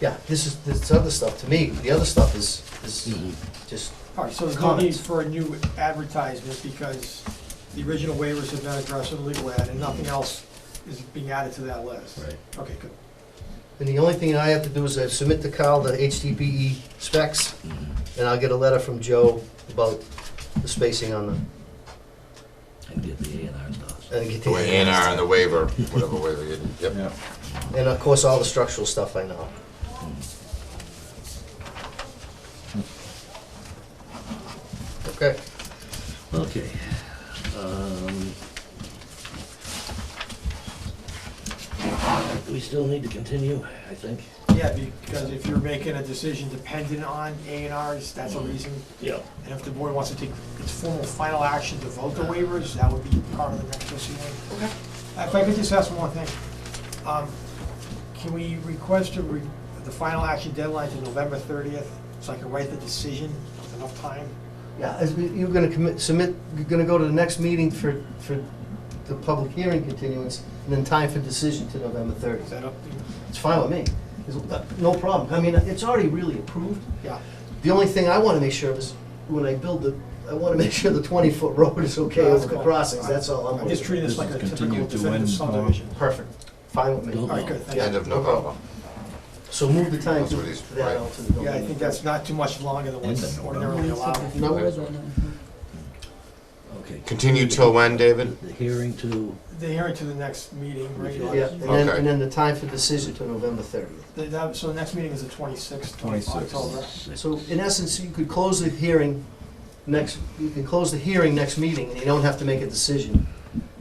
Yeah, this is, this other stuff, to me, the other stuff is, is Mm-hmm. just, All right, so there's no need Comments. for a new advertisement because the original waivers have been addressed in the legal ad and nothing else is being added to that list. Right. Okay, good. and the only thing I have to do is I submit to Kyle the HDPE E specs, Mm-hmm. and I'll get a letter from Joe about the spacing on the, And get the A and R stuff. and get The the. way A and R and the waiver, whatever waiver you did, yep. Yeah. And of course, all the structural stuff I know. Mm-hmm. Okay, Okay. um, We still need to continue, I think. Yeah, because if you're making a decision dependent on A and Rs, that's a reason. Yeah. And if the board wants to take its formal final action to vote the waivers, that would be part of the next proceeding. Okay. If I could just ask one more thing. Um, Can we request a re- the final action deadline to November 30th so I can write the decision with enough time? yeah, as we- you're gonna commit, submit, you're gonna go to the next meeting for, for the public hearing continuance, and then time for decision to November Is thirtieth. that up? to you? It's fine with me, It's- no problem, I mean, it's already really approved. Yeah. The only thing I wanna make sure of is, when I build the, I wanna make sure the twenty-foot road is okay Yeah, that's over the cool. crossings, that's all I'm I'm worried just treating this This like is a typical continued to when, definitive Norm? subdivision. about. Perfect, fine with me. Don't- All right, good, thank End you. of November. So move the time That's to what he's- that out to the. Yeah, I think that's not too much longer than End what's of ordinarily allowed. Okay. Continue till when, David? The hearing to, The hearing to the next meeting, regular. Yeah, and then, and then the time for decision to November thirtieth. The- that- So the next meeting is the 26th of 26th. October. So in essence, you could close the hearing next, you can close the hearing next meeting, and you don't have to make a decision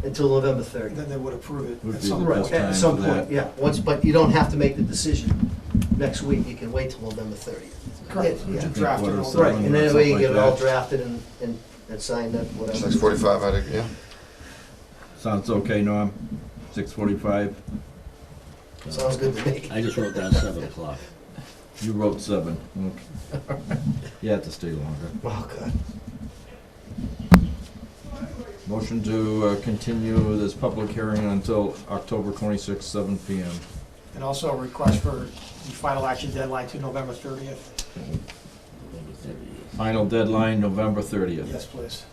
until November thirtieth. Then they would approve it Would at be some the point. best At time some for point, that. yeah, once, but you don't have to make the decision next week, you can wait till November thirtieth. Correct. Yeah, yeah. Draft it Right, all. Right, and then that way you Something get it all like that. drafted and, and, and signed up, whatever. Six forty-five, I think, yeah. Sounds okay, Norm? Six forty-five? Sounds good to me. I just wrote down seven o'clock. You wrote seven. Okay. You have to stay longer. Oh, God. Motion to uh, continue this public hearing until October twenty-sixth, seven P M. And also a request for the final action deadline to November 30th. Final deadline, November thirtieth. Yes, please.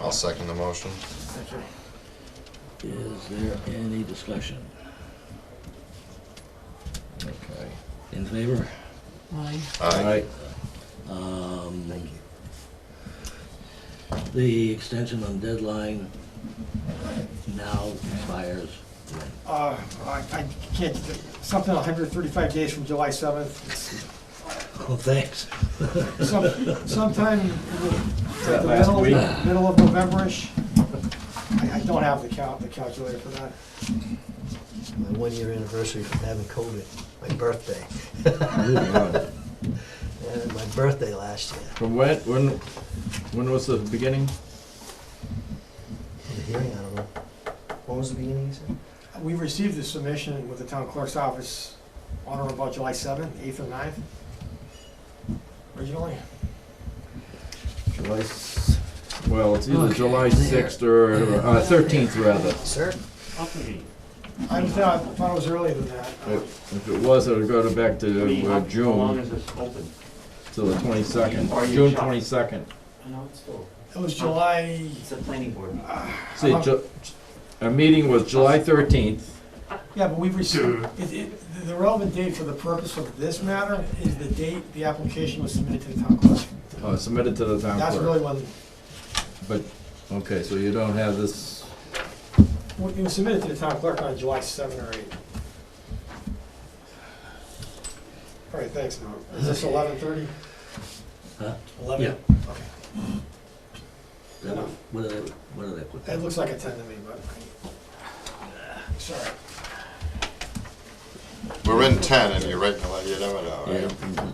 I'll second the motion. Thank you. Is there any discussion? Okay. In favor? All Aye. right. Um, The extension on deadline now expires when? Uh, I I can't, something 135 days from July 7th. Oh, thanks. Some- Sometime in the- That the last middle, week? middle of November-ish. I I don't have the cal, the calculator for that. My one-year anniversary from having COVID, my birthday, Moving on. and my birthday last year. From when, when, when was the beginning? The hearing, I don't know. What was the beginning, you said? We received the submission with the town clerk's office on or about July 7th, 8th or 9th originally. July, s- well, it's either Okay, July there. sixth or, uh, thirteenth rather. Sir? I thought, thought it was earlier than that. If if it was, it would go to back to uh, How long June, is this open? to the twenty-second, Or you June shop. twenty-second. I know, it's still, It was July, it's a planning board. meeting. See, Ju- our meeting was July thirteenth, yeah, but we've received, it, it, the relevant date for the purpose of this matter is the date the application was submitted to the town clerk. uh, submitted to the town That's really clerk. when, But, okay, so you don't have this, when it was submitted to the town clerk on July 7 or 8. All right, thanks, Norm. Is this 11:30? Huh? 11? What do they, what do they put? It looks like a 10 to me, but, uh, sorry. We're in ten and you're right in the, li- you never know, Yeah. right? mhm.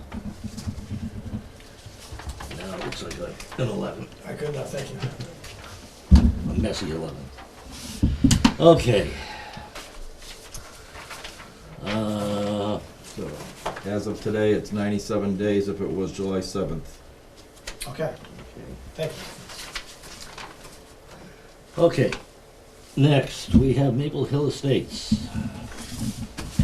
Mm-hmm. Now, it looks like a- an eleven, I could not, thank you. a messy eleven. Okay. Uh, so, as of today, it's ninety-seven days if it was July seventh. Okay, thank you. Okay, next, we have Maple Hill Estates.